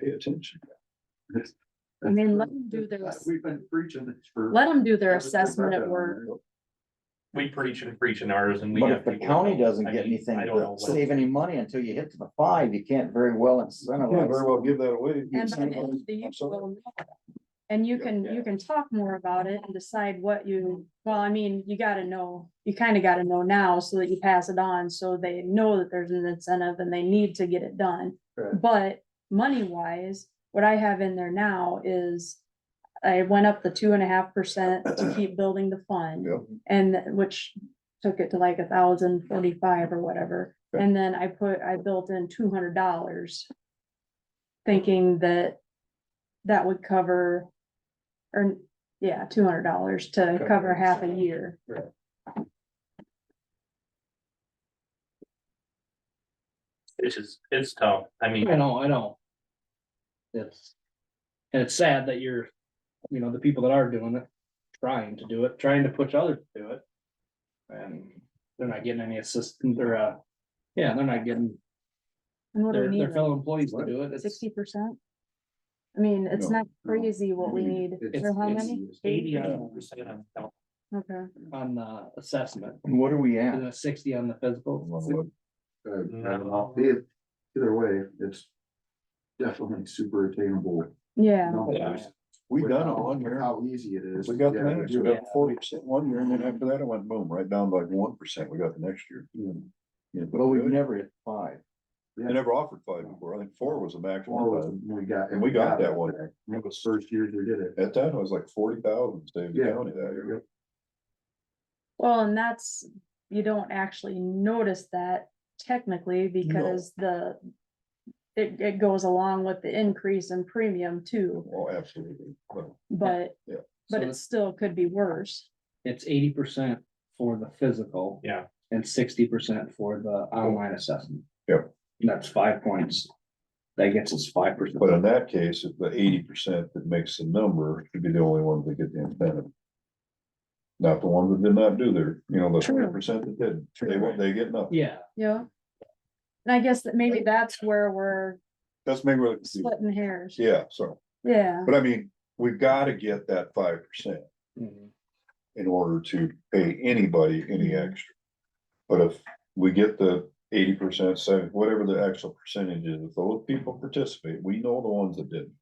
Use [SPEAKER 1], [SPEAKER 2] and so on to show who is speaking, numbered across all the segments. [SPEAKER 1] pay attention.
[SPEAKER 2] I mean, let them do their, ass-
[SPEAKER 1] We've been preaching this for.
[SPEAKER 2] let them do their assessment at work.
[SPEAKER 3] We preach and preach in ours and we.
[SPEAKER 4] But
[SPEAKER 3] have
[SPEAKER 4] if the
[SPEAKER 3] people
[SPEAKER 4] county
[SPEAKER 3] that-
[SPEAKER 4] doesn't
[SPEAKER 3] I
[SPEAKER 4] get
[SPEAKER 3] mean,
[SPEAKER 4] anything,
[SPEAKER 3] I don't know what-
[SPEAKER 4] save any money until you hit to the five, you can't very well
[SPEAKER 1] You Can't very
[SPEAKER 4] incentivize.
[SPEAKER 1] well give that away.
[SPEAKER 2] And by the end of the year,
[SPEAKER 1] I'm sorry.
[SPEAKER 2] we'll know. And you can, you can talk more about it and decide what you, well, I mean, you gotta know, you kinda gotta know now so that you pass it on, so they know that there's an incentive and they need to get it done.
[SPEAKER 1] Right.
[SPEAKER 2] But money wise, what I have in there now is I went up the two and a half percent to keep building the fund.
[SPEAKER 1] Yep.
[SPEAKER 2] And th- which took it to like a thousand forty-five or whatever,
[SPEAKER 1] Okay.
[SPEAKER 2] and then I put, I built in two hundred dollars. Thinking that that would cover, or, yeah, two hundred dollars to
[SPEAKER 1] Cover
[SPEAKER 2] cover half a
[SPEAKER 1] itself.
[SPEAKER 2] year.
[SPEAKER 3] It's just, it's tough. I mean,
[SPEAKER 5] I know, I know. It's, and it's sad that you're, you know, the people that are doing it, trying to do it, trying to push others to do it. And they're not getting any assistance or, uh, yeah, they're not getting
[SPEAKER 2] And what do we
[SPEAKER 5] their,
[SPEAKER 2] need,
[SPEAKER 5] their fellow employees to do it. It's
[SPEAKER 2] sixty percent? I mean, it's
[SPEAKER 1] No,
[SPEAKER 2] not crazy what we need,
[SPEAKER 1] Mm-hmm. It's-
[SPEAKER 2] or how
[SPEAKER 5] Mm-hmm. it's-
[SPEAKER 2] many,
[SPEAKER 5] eighty on,
[SPEAKER 3] percent of-
[SPEAKER 2] okay,
[SPEAKER 5] on the assessment,
[SPEAKER 4] And what are we
[SPEAKER 5] and
[SPEAKER 4] at?
[SPEAKER 5] then sixty on the physical.
[SPEAKER 3] No.
[SPEAKER 1] Either either way, it's definitely super attainable.
[SPEAKER 2] yeah.
[SPEAKER 1] numbers
[SPEAKER 4] We
[SPEAKER 1] with
[SPEAKER 4] done it
[SPEAKER 1] how-
[SPEAKER 4] one
[SPEAKER 1] with
[SPEAKER 4] year.
[SPEAKER 1] How easy it is.
[SPEAKER 6] We got the
[SPEAKER 1] Yeah,
[SPEAKER 6] minutes,
[SPEAKER 1] do
[SPEAKER 6] we
[SPEAKER 1] it.
[SPEAKER 6] got forty percent one year, and then after that, it went boom, right down by one percent, we got the next year. Yeah, but
[SPEAKER 4] Well, we've
[SPEAKER 6] we
[SPEAKER 4] never hit five.
[SPEAKER 6] never offered five before, I think four was the
[SPEAKER 1] Well,
[SPEAKER 6] maximum,
[SPEAKER 1] when we got.
[SPEAKER 6] And we got that one.
[SPEAKER 1] back. It was first year we did it.
[SPEAKER 6] at that, it was like forty thousand, saved the
[SPEAKER 1] Yeah.
[SPEAKER 6] county that year.
[SPEAKER 2] Well, and that's, you don't actually notice that technically because the. It, it goes along with the increase in premium too,
[SPEAKER 6] Oh, absolutely, But
[SPEAKER 2] but,
[SPEAKER 6] Yeah.
[SPEAKER 2] but
[SPEAKER 5] So
[SPEAKER 2] it still could be worse.
[SPEAKER 5] It's eighty percent for the physical.
[SPEAKER 3] Yeah.
[SPEAKER 5] And sixty percent for the online assessment.
[SPEAKER 6] Yep.
[SPEAKER 5] And that's five points. That gets us five percent.
[SPEAKER 6] but in that case, if the eighty percent that makes the number should be the only ones that get the incentive. Not the ones that did not do their, you know, the
[SPEAKER 2] True.
[SPEAKER 6] twenty percent that did, they won't, they get nothing,
[SPEAKER 5] Yeah,
[SPEAKER 2] Yeah. And I guess that maybe that's where we're
[SPEAKER 6] that's maybe what,
[SPEAKER 2] splitting hairs.
[SPEAKER 6] yeah, so,
[SPEAKER 2] Yeah,
[SPEAKER 6] but I mean, we've gotta get that five percent.
[SPEAKER 5] mhm,
[SPEAKER 6] in order to pay anybody any extra. But if we get the eighty percent, say, whatever the actual percentage is, if those people participate, we know the ones that didn't.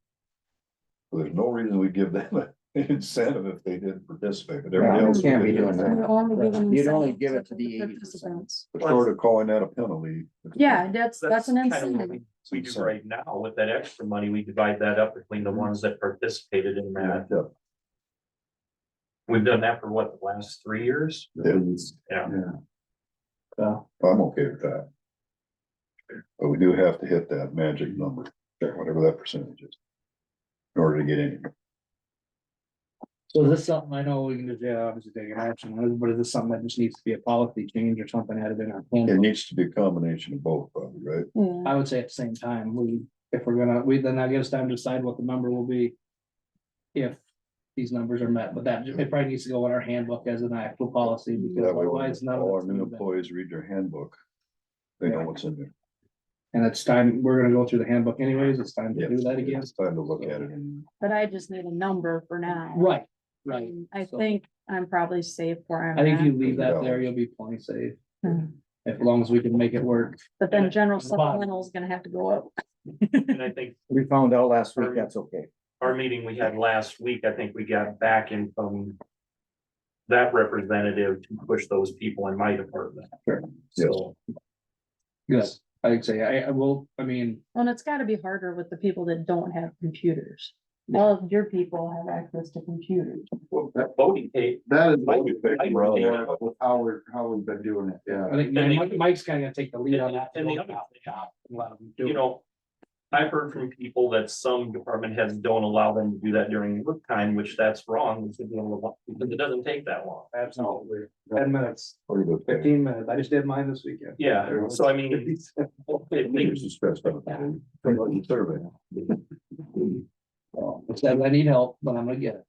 [SPEAKER 6] So There's no reason we give them an incentive if they didn't participate, but
[SPEAKER 4] Yeah,
[SPEAKER 6] everybody
[SPEAKER 2] we
[SPEAKER 6] else.
[SPEAKER 4] can't be
[SPEAKER 6] did.
[SPEAKER 4] doing that.
[SPEAKER 2] You're only giving
[SPEAKER 4] You'd only
[SPEAKER 2] incentive
[SPEAKER 4] give it to the
[SPEAKER 2] participants.
[SPEAKER 6] But Short of calling that a penalty.
[SPEAKER 2] Yeah, that's, that's an
[SPEAKER 3] kinda what
[SPEAKER 2] incentive.
[SPEAKER 3] we- We do right now with that extra money, we divide that up between
[SPEAKER 4] Mm-hmm.
[SPEAKER 3] the ones that participated in
[SPEAKER 6] Yeah,
[SPEAKER 3] that. We've done that for what, the last three years?
[SPEAKER 6] yeah,
[SPEAKER 3] Yeah.
[SPEAKER 5] so,
[SPEAKER 6] I'm okay with that. But we do have to hit that magic number, whatever that percentage is. In order to get any.
[SPEAKER 5] so is this something I know we can just, yeah, obviously take an action, on it, but is this something that just needs to be a policy change or something added in our
[SPEAKER 6] It
[SPEAKER 5] plan?
[SPEAKER 6] needs to be a combination of both, probably, right?
[SPEAKER 2] Yeah.
[SPEAKER 5] I would say at the same time, we, if we're gonna, we, then that gives time to decide what the number will be. If these numbers are met, but that, it probably needs to go in our handbook as an actual policy, because
[SPEAKER 6] That way, when
[SPEAKER 5] otherwise none
[SPEAKER 6] all our
[SPEAKER 5] of
[SPEAKER 6] new
[SPEAKER 5] it's.
[SPEAKER 6] employees read their handbook. They know what's in there.
[SPEAKER 5] And it's time, we're gonna go through the handbook anyways, it's time to
[SPEAKER 6] Yeah.
[SPEAKER 5] do that again.
[SPEAKER 6] It's time to look at it and
[SPEAKER 2] But I just need a number for now.
[SPEAKER 5] Right, right.
[SPEAKER 2] And I
[SPEAKER 5] So-
[SPEAKER 2] think I'm probably safe where I'm
[SPEAKER 5] I think if
[SPEAKER 2] at,
[SPEAKER 5] you leave that there, you'll be plenty safe,
[SPEAKER 2] Hmm.
[SPEAKER 5] as long as we can make it work.
[SPEAKER 2] but then general
[SPEAKER 5] the bottom.
[SPEAKER 2] supplemental is gonna have to go up.
[SPEAKER 3] And I think
[SPEAKER 4] We found out last week, that's okay.
[SPEAKER 3] our meeting we had last week, I think we got back in from. That representative to push those people in my department.
[SPEAKER 5] Sure.
[SPEAKER 3] So,
[SPEAKER 5] Yes, I'd say, I, I will, I mean,
[SPEAKER 2] Well, and it's gotta be harder with the people that don't have computers. All of your people have access to computers.
[SPEAKER 1] Well, that,
[SPEAKER 3] voting tape,
[SPEAKER 1] that is
[SPEAKER 3] Mike-
[SPEAKER 1] what we
[SPEAKER 3] Mike-
[SPEAKER 1] picked, bro, with how we're, how we've been doing it,
[SPEAKER 5] I
[SPEAKER 1] yeah.
[SPEAKER 5] think
[SPEAKER 3] And the-
[SPEAKER 5] Mike- Mike's kinda gonna take the lead on that.
[SPEAKER 3] And the other-
[SPEAKER 5] Let him do
[SPEAKER 3] you
[SPEAKER 5] it.
[SPEAKER 3] know. I've heard from people that some department heads don't allow them to do that during work time, which that's wrong. we should be able to walk- Because it doesn't take that long.
[SPEAKER 5] Absolutely, ten minutes,
[SPEAKER 6] order the pay.
[SPEAKER 5] fifteen minutes, I just did mine this weekend.
[SPEAKER 3] Yeah, so I mean. it
[SPEAKER 6] Here's
[SPEAKER 3] makes-
[SPEAKER 6] the stress out there. Fill out your survey.
[SPEAKER 5] Well, it says I need help, but I'm gonna get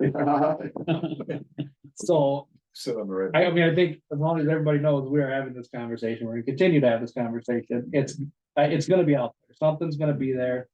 [SPEAKER 5] it, so.
[SPEAKER 6] Sit on the right.
[SPEAKER 5] I, I mean, I think as long as everybody knows we are having this conversation, we're gonna continue to have this conversation, it's, uh, it's gonna be out there, something's gonna be there.